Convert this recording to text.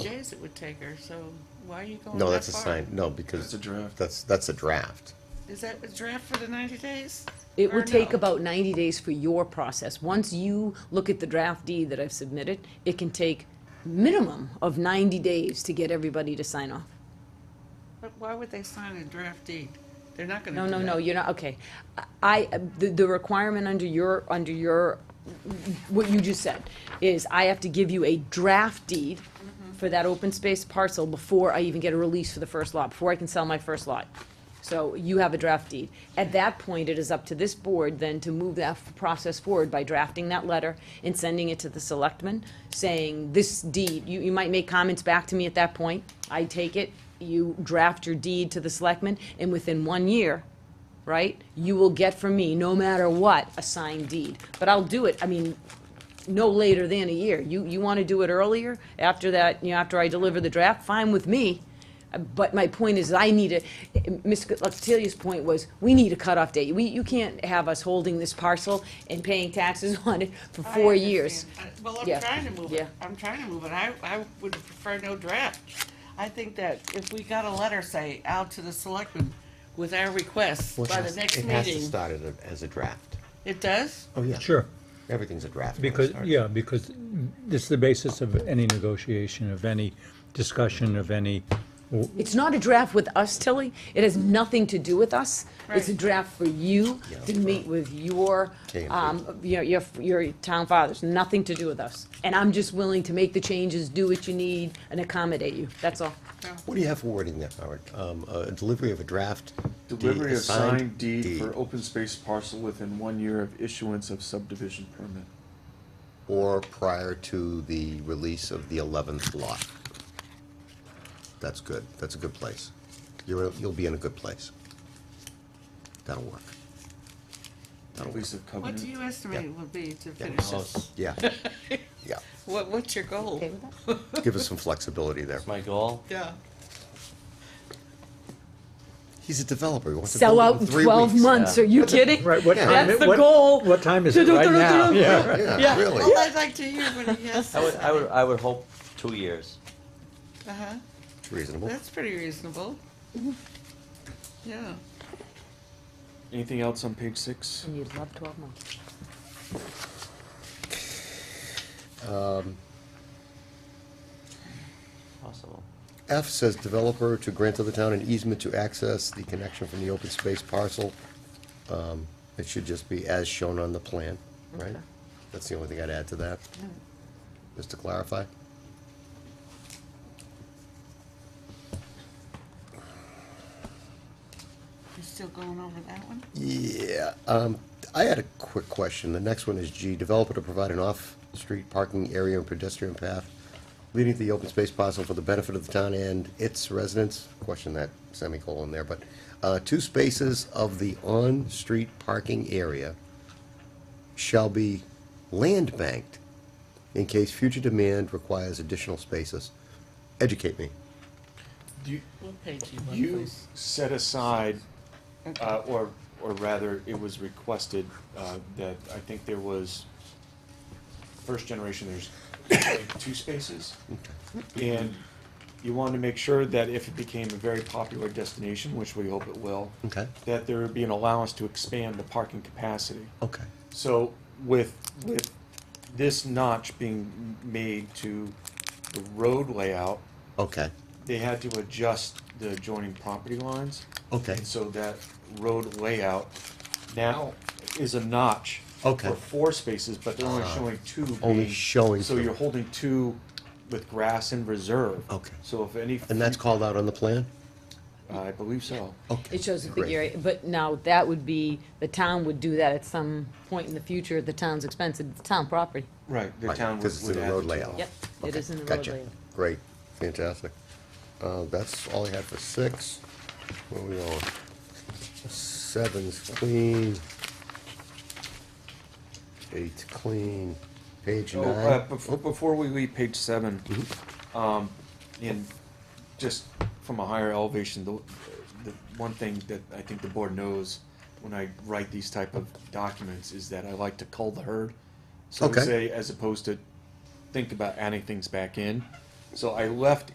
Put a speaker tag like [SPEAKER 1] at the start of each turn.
[SPEAKER 1] days it would take her, so why are you going that far?
[SPEAKER 2] No, that's a sign, no,
[SPEAKER 3] That's
[SPEAKER 2] because
[SPEAKER 3] a draft.
[SPEAKER 2] that's, that's a draft.
[SPEAKER 1] Is that the draft for the ninety days?
[SPEAKER 4] It
[SPEAKER 1] Or
[SPEAKER 4] will take
[SPEAKER 1] no?
[SPEAKER 4] about ninety days for your process. Once you look at the draft deed that I've submitted, it can take minimum of ninety days to get everybody to sign off.
[SPEAKER 1] But why would they sign a draft deed? They're not gonna
[SPEAKER 4] No,
[SPEAKER 1] do
[SPEAKER 4] no, no,
[SPEAKER 1] that.
[SPEAKER 4] you're not, okay. I, the, the requirement under your, under your, what you just said, is I have to give you a draft deed for that open space parcel before I even get a release for the first lot, before I can sell my first lot. So you have a draft deed. At that point, it is up to this board then to move that f- process forward by drafting that letter and sending it to the selectmen, saying, this deed, you, you might make comments back to me at that point. I take it, you draft your deed to the selectmen, and within one year, right, you will get from me, no matter what, a signed deed. But I'll do it, I mean, no later than a year. You, you want to do it earlier, after that, you know, after I deliver the draft, fine with me. Uh, But my point is, I need a, Ms. Latilia's point was, we need a cutoff date. We, you can't have us holding this parcel and paying taxes on it for
[SPEAKER 1] I
[SPEAKER 4] four years.
[SPEAKER 1] understand. I- Well, I'm
[SPEAKER 4] Yeah.
[SPEAKER 1] trying to move it,
[SPEAKER 4] Yeah.
[SPEAKER 1] I'm trying to move it, I, I would prefer no draft. I think that if we got a letter, say, out to the selectmen with our request
[SPEAKER 2] Which
[SPEAKER 1] by the
[SPEAKER 2] has-
[SPEAKER 1] next
[SPEAKER 2] It has to
[SPEAKER 1] meeting,
[SPEAKER 2] start as a- as a draft.
[SPEAKER 1] it does?
[SPEAKER 2] Oh, yeah.
[SPEAKER 5] Sure,
[SPEAKER 2] Everything's a draft. when it
[SPEAKER 5] because,
[SPEAKER 2] starts.
[SPEAKER 5] yeah, because it's the basis of any negotiation, of any discussion, of any,
[SPEAKER 4] It's not a draft with us, Tilly. It has nothing to do with us. It's a
[SPEAKER 1] Right.
[SPEAKER 4] draft for you to
[SPEAKER 2] Yeah.
[SPEAKER 4] meet with your,
[SPEAKER 2] Okay,
[SPEAKER 4] um, your, your, your town fathers. Nothing to do with us. And I'm just willing to make the changes, do what you need, and accommodate you. That's all.
[SPEAKER 2] What do you have for wording there, Howard? Um, a delivery of a draft. deed-
[SPEAKER 3] Delivery
[SPEAKER 2] a
[SPEAKER 3] of signed deed for open space parcel within one year of issuance of subdivision permit.
[SPEAKER 2] Or prior to the release of the eleventh lot. That's good, that's a good place. You're, you'll be in a good place. That'll work. That'll work.
[SPEAKER 3] Release of
[SPEAKER 1] What do
[SPEAKER 3] covenant.
[SPEAKER 1] you estimate it would be to
[SPEAKER 2] Yeah.
[SPEAKER 1] finish this?
[SPEAKER 6] Oh,
[SPEAKER 2] Yeah, yeah.
[SPEAKER 1] What, what's your goal?
[SPEAKER 2] Give us some flexibility there.
[SPEAKER 6] That's my goal.
[SPEAKER 1] Yeah.
[SPEAKER 2] He's a developer, he wants to
[SPEAKER 4] Sell
[SPEAKER 2] build it
[SPEAKER 4] out
[SPEAKER 2] in
[SPEAKER 4] in
[SPEAKER 2] three weeks.
[SPEAKER 4] twelve months,
[SPEAKER 6] Yeah.
[SPEAKER 4] are you kidding?
[SPEAKER 5] right, what
[SPEAKER 2] Yeah.
[SPEAKER 5] time?
[SPEAKER 4] That's the
[SPEAKER 5] what-
[SPEAKER 4] goal.
[SPEAKER 5] What time is it right now? Yeah.
[SPEAKER 2] Yeah,
[SPEAKER 4] Yeah.
[SPEAKER 1] Well,
[SPEAKER 2] really,
[SPEAKER 1] I'd like to hear what he has
[SPEAKER 6] I
[SPEAKER 1] to
[SPEAKER 6] would, I would,
[SPEAKER 1] say.
[SPEAKER 6] I would hope two years.
[SPEAKER 1] Uh-huh.
[SPEAKER 2] it's reasonable.
[SPEAKER 1] That's pretty reasonable. Yeah.
[SPEAKER 3] Anything else on page six?
[SPEAKER 4] And you'd love twelve months.
[SPEAKER 6] Possible.
[SPEAKER 2] F says developer to grant to the town an easement to access the connection from the open space parcel. Um, It should just be as shown on the plan, right? That's the only thing I'd add to that. Just to clarify.
[SPEAKER 1] You still going over that one?
[SPEAKER 2] Yeah, um, I had a quick question. The next one is G, developer to provide an off-street parking area and pedestrian path leading to the open space parcel for the benefit of the town and its residents. Question that semicolon there, but, uh, two spaces of the on-street parking area shall be land banked in case future demand requires additional spaces. Educate me.
[SPEAKER 3] You,
[SPEAKER 1] What page you want,
[SPEAKER 3] you
[SPEAKER 1] please?
[SPEAKER 3] set aside, uh, or, or rather, it was requested, uh, that, I think there was, first generation, there's like two spaces. And you wanted to make sure that if it became a very popular destination, which we hope it will,
[SPEAKER 2] Okay.
[SPEAKER 3] that there would be an allowance to expand the parking capacity.
[SPEAKER 2] Okay.
[SPEAKER 3] So with, with this notch being made to the road layout,
[SPEAKER 2] Okay,
[SPEAKER 3] they had to adjust the adjoining property lines.
[SPEAKER 2] Okay.
[SPEAKER 3] And so that road layout now is a notch.
[SPEAKER 2] Okay.
[SPEAKER 3] For four spaces, but they're only
[SPEAKER 2] Ah.
[SPEAKER 3] showing two.
[SPEAKER 2] Only
[SPEAKER 3] being-
[SPEAKER 2] showing
[SPEAKER 3] So
[SPEAKER 2] two.
[SPEAKER 3] you're holding two with grass in reserve.
[SPEAKER 2] Okay.
[SPEAKER 3] So if any.
[SPEAKER 2] and that's Oh, called out on the plan?
[SPEAKER 3] I believe so.
[SPEAKER 2] Okay.
[SPEAKER 4] It shows a big
[SPEAKER 2] Great.
[SPEAKER 4] area, but now that would be, the town would do that at some point in the future at the town's expense, at the town property.
[SPEAKER 3] Right, the
[SPEAKER 2] Right,
[SPEAKER 3] town would.
[SPEAKER 2] 'cause it's
[SPEAKER 3] would
[SPEAKER 2] in the
[SPEAKER 3] add
[SPEAKER 2] road
[SPEAKER 3] the two
[SPEAKER 2] layout.
[SPEAKER 3] lots.
[SPEAKER 4] Yep, it
[SPEAKER 2] Okay,
[SPEAKER 4] is in the road
[SPEAKER 2] gotcha.
[SPEAKER 4] layout.
[SPEAKER 2] Great, fantastic. Uh, that's all I had for six. Where we on? Seven's clean. Eight's clean. Page
[SPEAKER 3] Oh, uh,
[SPEAKER 2] nine. Mm-hmm.
[SPEAKER 3] before, before we leave page seven, um, and just from a higher elevation, the, the one thing that I think the board knows when I write these type of documents is that I like to cull the herd. So to
[SPEAKER 2] Okay.
[SPEAKER 3] say, as opposed to think about adding things back in. So I left